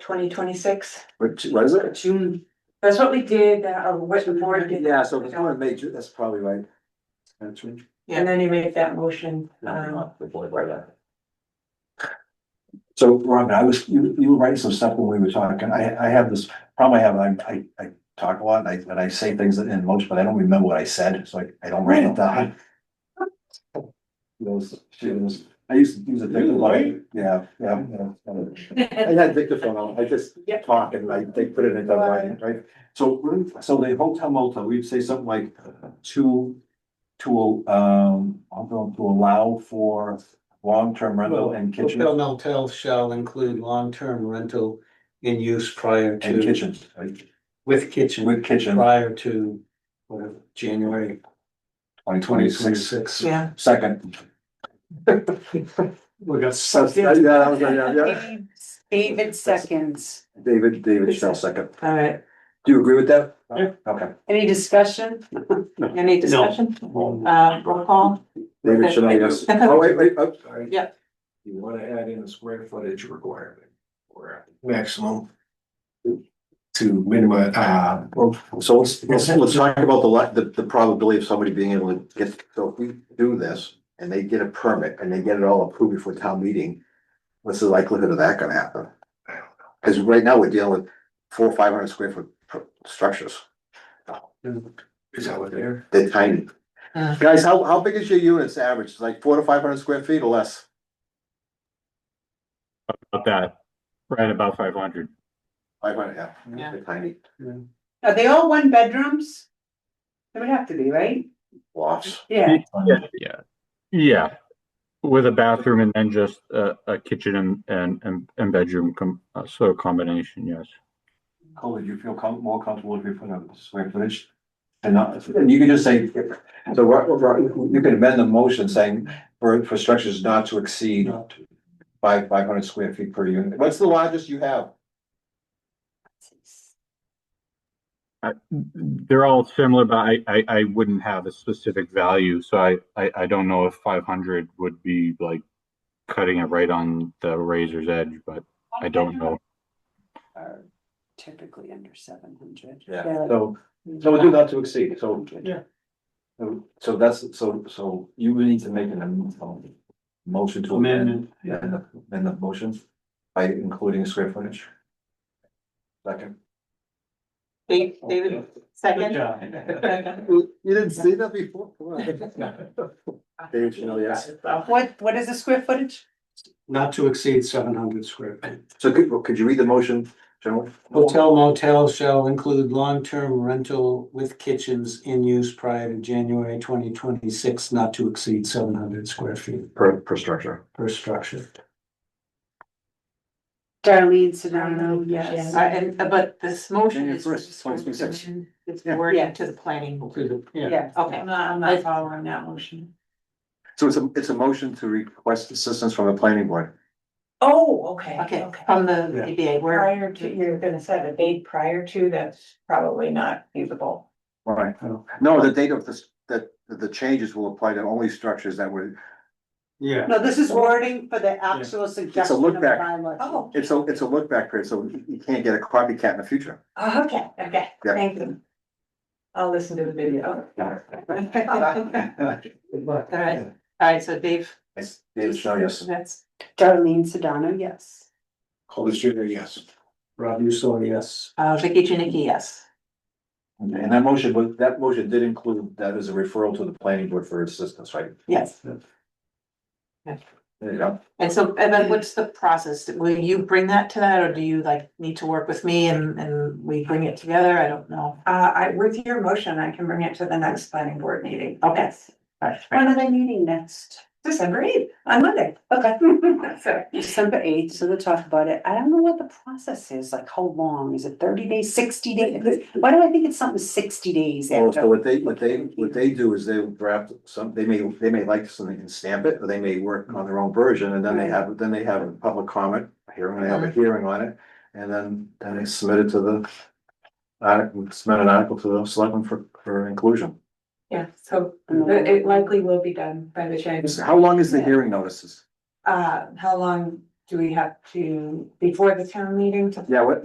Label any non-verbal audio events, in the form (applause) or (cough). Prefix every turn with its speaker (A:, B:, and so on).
A: twenty twenty-six.
B: Which was it?
A: June. That's what we did, uh, what the board did,
B: Yeah, so if it's one major, that's probably right. Actually.
A: and then you make that motion, um,
B: So Robin, I was, you, you were writing some stuff when we were talking. I, I have this problem I have, I, I, I talk a lot and I, and I say things in motion, but I don't remember what I said, so I, I don't write it down. Those, she was, I used to use a dictaphone. Yeah, yeah. yeah. I had dictaphone, on. I just
A: Yep.
B: talk and I, they put it in that line, right? So, we're- so the hotel motel, we'd say something like two to, um, I'm going to allow for long-term rental and
C: Hotel
B: kitchen,
C: motel shall include long-term rental in use prior
B: and
C: to,
B: kitchens, right?
C: with kitchen,
B: with kitchen,
C: prior to, whatever, January
B: twenty twenty-six,
A: (laughs)
C: twenty-six.
A: yeah.
C: (laughs)
B: second.
C: We got
B: So, yeah, that was- yeah, yeah.
D: David seconds.
B: David, David Shell, second.
A: All right,
B: Do you agree with that?
C: Yeah.
B: Okay.
D: Any (laughs) discussion? Any discussion? Uh, roll call?
B: David Shell, yes. Oh, wait, wait, oh,
E: Sorry.
D: Yeah.
E: You wanna add in a square footage requirement or maximum. To minimize, uh, well,
B: So let's, let's, let's talk about the, li- the, the probability of somebody being able to get, so if we do this and they get a permit and they get it all approved before town meeting, what's the likelihood of that gonna happen? Cause right now we're dealing with four, five hundred square foot pr- structures.
E: is that what they're?
B: They're tiny.
A: Mm.
B: Guys, how, how big is your units average? It's Like four to five hundred square feet or less?
F: About that, right about five hundred.
B: Five hundred, yeah.
D: Yeah.
B: They're tiny
D: Are they all one bedrooms? They would have to be, right?
B: lofts.
D: Yeah.
F: Yeah. Yeah, with a bathroom and then just a, a kitchen and, and, and, and bedroom com, uh, so combination, yes.
B: Cole, do you feel com- more comfortable if you put a square footage? And not, and you can just say, so right, right, you can amend the motion saying for, for structures not to exceed five, five hundred square feet per unit. What's the largest you have?
F: They're all similar, but I, I, I wouldn't have a specific value, so I, I, I don't know if five hundred would be like cutting it right on the razor's edge, but I don't know.
D: Are Typically under seven hundred.
B: So, so we do not to exceed, so.
C: Yeah.
B: So- So that's, so, so you would need to make an am- um, motion to amend,
C: Amendment.
B: yeah, and the, and the motion by including square footage. Second.
D: David, second?
B: You didn't see that before? David Chanel, yes.
D: What, what is the square footage?
C: Not to exceed seven hundred square feet.
B: So could, could you read the motion, General?
C: Hotel motel shall include long-term rental with kitchens in use prior to January twenty twenty-six, not to exceed seven hundred square feet
B: Per, per structure.
C: per structure.
D: Darlene
A: Sedano, yes.
D: Uh, and, but this motion
B: January
D: is.
B: 1st, 2026.
D: It's
B: Yeah.
D: worded to the planning. board.
C: Yeah,
D: Yeah, okay.
A: I'm not, I'm
D: I-
A: not following that motion.
B: So it's a, it's a motion to request assistance from the planning board.
A: Oh, okay,
D: Okay, Um,
A: okay.
D: from the
C: Yeah.
D: ZBA, where,
A: Prior to, you're gonna set a date prior to, that's probably not feasible.
B: All right. No, the date of this, that, that the changes will apply to only structures that were,
C: yeah.
D: no, this is wording for the actual
B: It's a
D: suggestion
B: look
D: of
B: back.
D: bylaw.
A: Oh.
B: it's a, it's a look back period, so you can't get a copycat in the future.
A: Okay, okay,
B: Yeah.
A: thank you. I'll listen to the video.
D: All right, all right, so Dave.
B: It's David Chanel, yes.
D: That's Darlene Sedano, yes.
E: Coles Junior, yes.
C: Rob Usula, yes.
D: Uh, Vicky Janicki, yes.
B: Okay, And that motion, was that motion did include, that is a referral to the planning board for assistance, right?
D: Yes.
B: There you go.
D: And so, and then what's the process? Will you bring that to that, or do you like need to work with me and, and we bring it together? I don't know.
A: Uh, I, with your motion, I can bring it to the next planning board meeting.
D: Okay. All right, right.
A: are they meeting next? December eighth, on Monday. Okay. (laughs) So,
G: December eighth, so they'll talk about it. I don't know what the process is, like how long? Is it thirty days, sixty days? Why do I think it's something sixty days
B: Well, Oh, so
G: after?
B: what they, what they, what they do is they draft some, they may, they may like something and stamp it, or they may work on their own version, and then they have, then they have a public comment hearing, they have a hearing on it, and then, then they submit it to the article, submit an article to the selectmen for, for inclusion.
A: yeah, so it it likely will be done by the change.
B: How long is the hearing notices?
A: Uh, how long do we have to, before the town meeting to
B: Yeah, what,